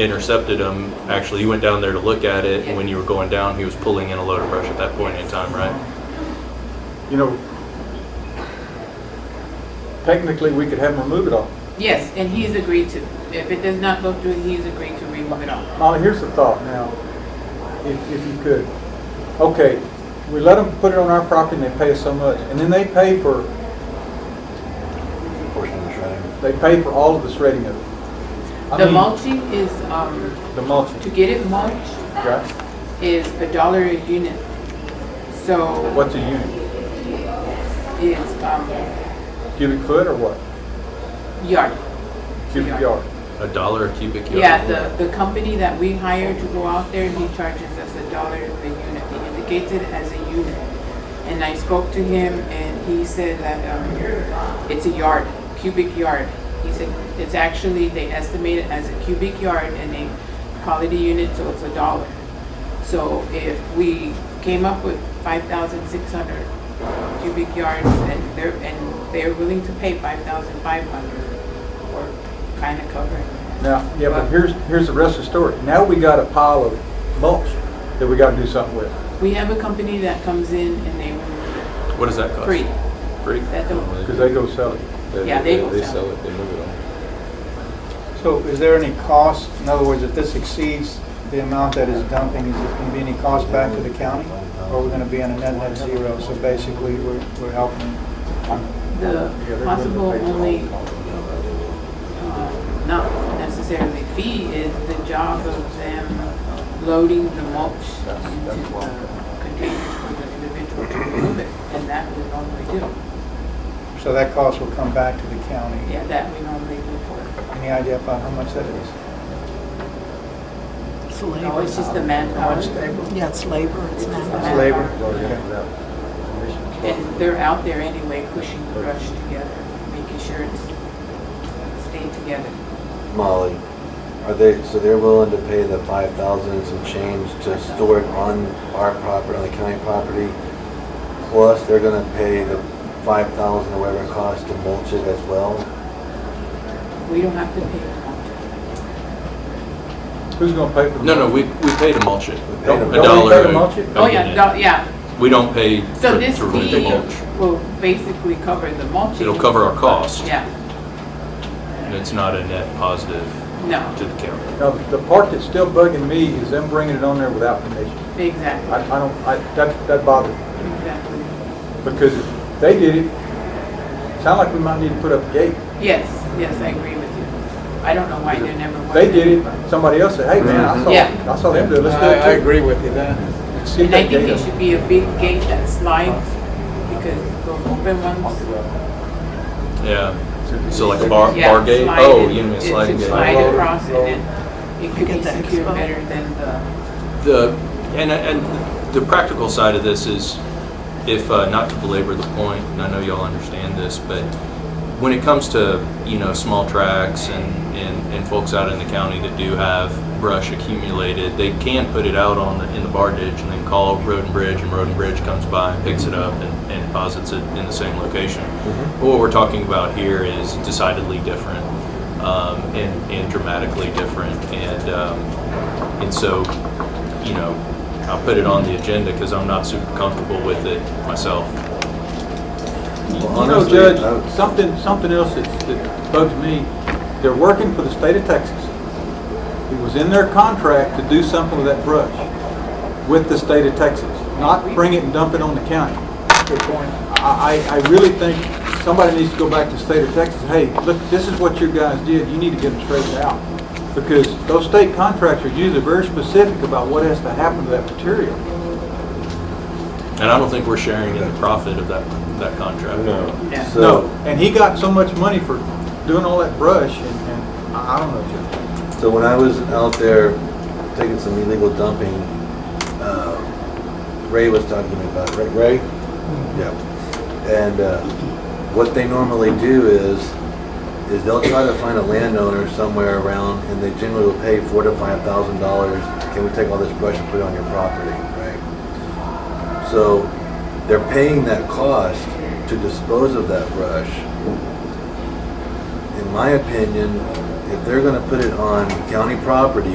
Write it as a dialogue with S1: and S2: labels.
S1: intercepted him. Actually, you went down there to look at it, and when you were going down, he was pulling in a load of brush at that point in time, right?
S2: You know, technically, we could have them remove it all.
S3: Yes, and he's agreed to. If it does not go through, he's agreed to remove it all.
S2: Molly, here's the thought now, if, if you could. Okay, we let them put it on our property and they pay us so much, and then they pay for,
S4: portion of the shredding.
S2: they pay for all of the shredding of it. I
S3: The
S2: mean,
S3: mulching is, um, to
S2: The mulching,
S3: get it mulched
S2: right?
S3: is a dollar a unit. So
S2: What's a unit?
S3: it's, um,
S2: Cubic foot or what?
S3: yard.
S2: Cubic
S3: Yard.
S2: yard?
S1: A dollar a cubic yard.
S3: Yeah, the, the company that we hire to go out there, he charges us a dollar a unit. He indicates it as a unit. And I spoke to him and he said that, um, it's a yard, cubic yard. He said, it's actually, they estimate it as a cubic yard and they call it a unit, so it's a dollar. So if we came up with five thousand six hundred cubic yards and they're, and they're willing to pay five thousand five hundred for kind of covering that.
S2: Now, yeah, but here's, here's the rest of the story. Now we got a pile of mulch that we gotta do something with.
S3: We have a company that comes in and they remove it
S1: What does that cost?
S3: free.
S1: Free?
S3: That don't-
S2: Because they go sell it.
S3: Yeah, they will sell.
S4: sell it, they move it on.
S5: So is there any cost? In other words, if this exceeds the amount that is dumping, is there going to be any cost back to the county? Or we're going to be on a net net zero? So basically, we're we're helping.
S3: The possible only, uh, not necessarily fee is the job of them loading the mulch into the containers for the individual to remove it. And that we normally do.
S5: So that cost will come back to the county.
S3: Yeah, that we normally do for.
S5: Any idea about how much that is?
S6: It's
S3: No,
S6: labor.
S3: it's just the manpower.
S6: Yeah, it's labor, it's
S3: It's
S6: not.
S3: labor.
S2: Okay.
S3: And they're out there anyway, pushing the brush together, making sure it's stayed together.
S4: Molly, are they, so they're willing to pay the five thousand and some change to store it on our property, on the county property? Plus, they're gonna pay the five thousand or whatever it costs to mulch it as well?
S3: We don't have to pay the contract.
S2: Who's gonna pay for the?
S1: No, no,
S2: mulch?
S1: we, we pay to mulch it.
S4: We pay
S2: Don't-
S4: them.
S1: A
S2: don't
S1: dollar.
S2: we pay to
S1: a-
S2: mulch it?
S1: a
S3: Oh, yeah,
S1: unit.
S3: no, yeah.
S1: We don't pay to
S3: So this
S1: to remove the
S3: fee
S1: mulch.
S3: will basically cover the mulching?
S1: It'll cover our cost.
S3: Yeah,
S1: And it's not a net positive
S3: no,
S1: to the county.
S2: Now, the part that's still bugging me is them bringing it on there without permission. I,
S3: exactly,
S2: I don't, I, that, that bothers me,
S3: exactly.
S2: because if they did it, sound like we might need to put up a gate.
S3: Yes, yes, I agree with you. I don't know why they never.
S2: They did it, somebody else said, hey, man,
S1: Mm-hmm.
S2: I
S3: Yeah.
S2: saw, I saw them do it, let's do it too.
S5: with you then.
S2: Let's get
S3: And I
S2: that
S3: think
S2: gate
S3: it
S2: up.
S3: should be a big gate that slides because those open ones.
S1: Yeah. So like a bar, bar
S3: yeah,
S1: gate?
S3: slide
S1: Oh,
S3: it.
S1: you mean a sliding
S3: It should
S1: gate? Oh.
S3: slide
S2: Roll,
S3: across and
S2: roll.
S3: then it could
S6: Get
S3: be
S6: the
S3: secured
S6: expo.
S3: better than the,
S1: The, and, and the practical side of this is, if, uh, not to belabor the point, and I know y'all understand this, but when it comes to, you know, small tracks and, and, and folks out in the county that do have brush accumulated, they can put it out on the, in the bar ditch and then call Road and Bridge, and Road and Bridge comes by and picks it up and, and deposits it in the same location. But What we're talking about here is decidedly different, um, and, and dramatically different, and, um, and so, you know, I'll put it on the agenda because I'm not super comfortable with it myself.
S4: Well,
S2: You know,
S4: honestly, I
S2: Judge,
S4: would-
S2: something, something else that's- that bugs me, they're working for the state of Texas. It was in their contract to do something with that brush, with the state of Texas, not bring it and dump it on the county.
S5: Good point.
S2: I, I I really think somebody needs to go back to the state of Texas, hey, look, this is what you guys did, you need to get them straightened out. Because those state contracts are usually very specific about what has to happen to that material.
S1: And I don't think we're sharing in the profit of that, that contract.
S3: no.
S2: No,
S4: So,
S2: and he got so much money for doing all that brush, and, and I I don't know, Judge.
S4: so when I was out there taking some illegal dumping, uh, Ray was talking to me about it, right, Ray? Yeah. And uh, what they normally do is, is they'll try to find a landowner somewhere around, and they generally will pay four to five thousand dollars. Can we take all this brush and put it on your property, right? So they're paying that cost to dispose of that brush. In my opinion, if they're gonna put it on county property,